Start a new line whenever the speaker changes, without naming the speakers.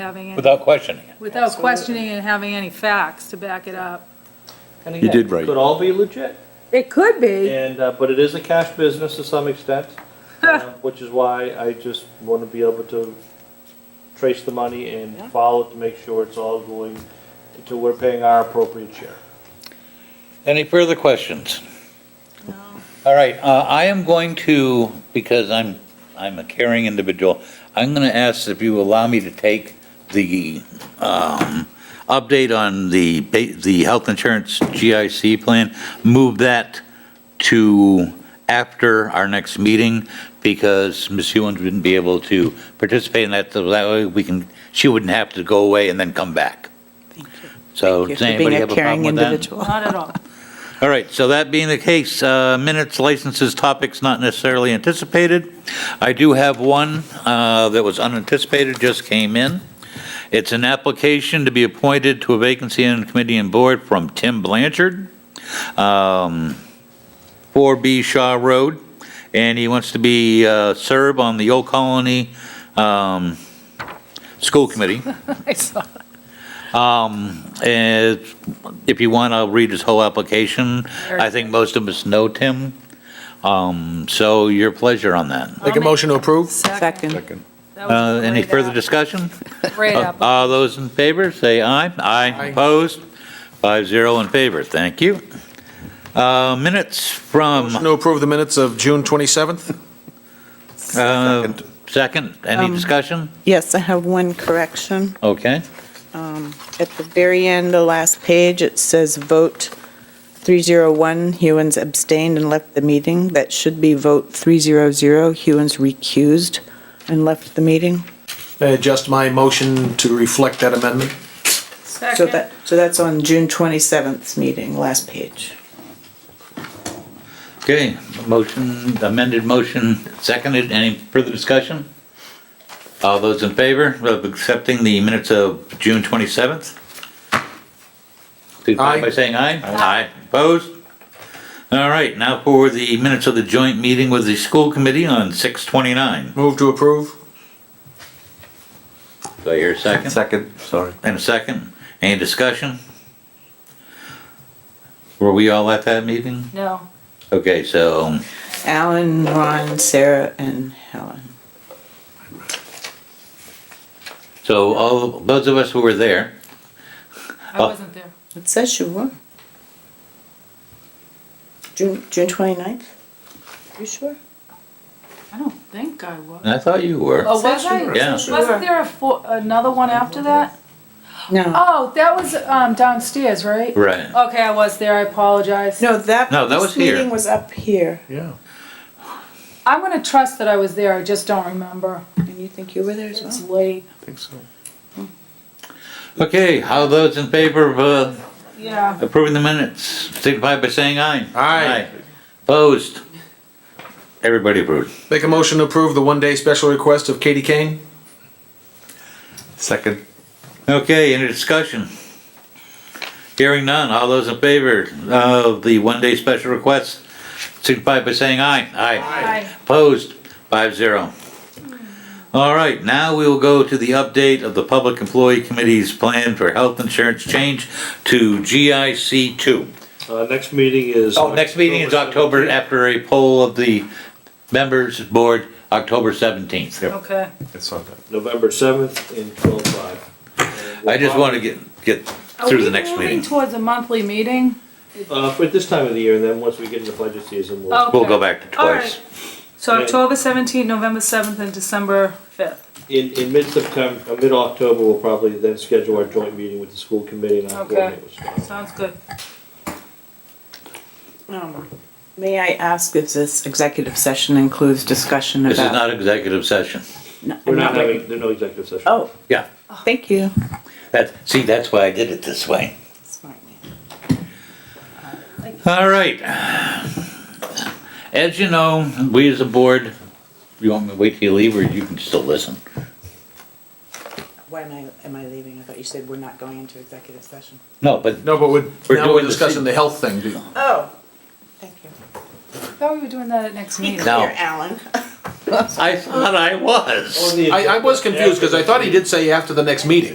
having, any-
without questioning it.
without questioning and having any facts to back it up.
And
You
again,
did right.
Could all be legit,
It could be.
and, uh, but it is a cash business to some extent, um, which is why I just want to be able to trace the money and follow it to make sure it's all going to, we're paying our appropriate share.
Any further questions? All right, uh, I am going to, because I'm, I'm a caring individual, I'm going to ask if you allow me to take the um, update on the, ba- the health insurance GIC plan, move that to after our next meeting, because Ms. Hewens wouldn't be able to participate in that, so that way we can, she wouldn't have to go away and then come back. So
Thank
does
you for
Oh,
being
anybody
a
have a problem
caring
with that?
individual.
Not at all.
All right, so that being the case, uh, minutes, licenses, topics not necessarily anticipated. I do have one uh, that was unanticipated, just came in. It's an application to be appointed to a vacancy on the committee and board from Tim Blanchard, um, 4B Shaw Road, and he wants to be, uh, serve on the Old Colony um, School Committee.
I saw.
Um, eh, if you want, I'll read his whole application. I think most of us know Tim. Um, so your pleasure on that.
Make a motion to approve?
Second.
Second.
That was a
Uh, any
great
further
app-
discussion? Uh,
Great app.
All those in favor, say aye. Aye. Opposed? Five zero in favor. Thank you. Uh, minutes
Motion
from,
to approve the minutes of June 27th?
uh, second, any
Um,
discussion?
Yes, I have one correction. Um,
Okay.
At the very end, the last page, it says vote 301, Hewens abstained and left the meeting. That should be vote 300, Hewens recused and left the meeting.
I Adjust my motion to reflect that amendment.
So
Second.
that, so that's on June 27th meeting, last page.
Okay, motion, amended motion, seconded, any further discussion? All those in favor of accepting the minutes of June 27th? Signify By
Aye.
saying aye? Aye. Opposed? All right, now for the minutes of the joint meeting with the school committee on 6:29.
Move to approve?
Do I hear a second?
Second, sorry.
And a second, any discussion? Were we all at that meeting?
No.
Okay, so,
Alan, Ron, Sarah, and Helen.
so all, those of us who were there,
I
Uh,
wasn't there.
It says you were. June, June 29th? You sure?
I don't think I was.
I thought you were.
Oh, was I?
Yeah.
Wasn't there a, fo- another one after that?
No.
Oh, that was um, downstairs, right?
Right.
Okay, I was there. I apologize.
No, that.
No, that was
this
here.
Meeting was up here,
Yeah.
I'm gonna trust that I was there. I just don't remember.
and you think you were there as
It's
well?
late.
I think so.
Okay, how those in favor of uh,
Yeah.
approving the minutes, signify by saying aye.
Aye.
Opposed? Everybody approved.
Make a motion to approve the one-day special request of Katie Kane?
Second.
Okay, any discussion? Hearing none, all those in favor of the one-day special request, signify by saying aye. Aye.
Hi.
Opposed? Five zero. All right, now we will go to the update of the Public Employee Committee's plan for health insurance change to GIC two.
Uh, next meeting is.
Oh, next meeting is October, after a poll of the members board, October 17th.
Okay.
It's on that.
November seventh and twelve five.
I just want to get, get through the next
Are we moving
meeting.
towards a monthly meeting?
Uh, for this time of the year, and then once we get into budget season, we'll.
Oh.
We'll go back to
All
twice.
right. So October 17th, November 7th, and December 5th.
In, in mid-September, uh, mid-October, we'll probably then schedule our joint meeting with the school committee and I'll
Okay.
coordinate with Scott.
Sounds good.
Um, May I ask if this executive session includes discussion about?
This is not executive session.
No,
We're
I'm
not
ready.
having, there's no executive session.
Oh,
Yeah,
thank you.
that, see, that's why I did it this way. All right. As you know, we as a board, you want me to wait till you leave or you can still listen?
Why am I, am I leaving? I thought you said we're not going into executive session.
No, but
No, but we're,
We're
now we're
doing the
discussing
same-
the health thing.
Oh, thank you.
Thought we were doing that at next meeting.
No.
Here, Alan.
I thought I was.
Or the
Oh,
I, I was confused because I thought he did say after the next meeting.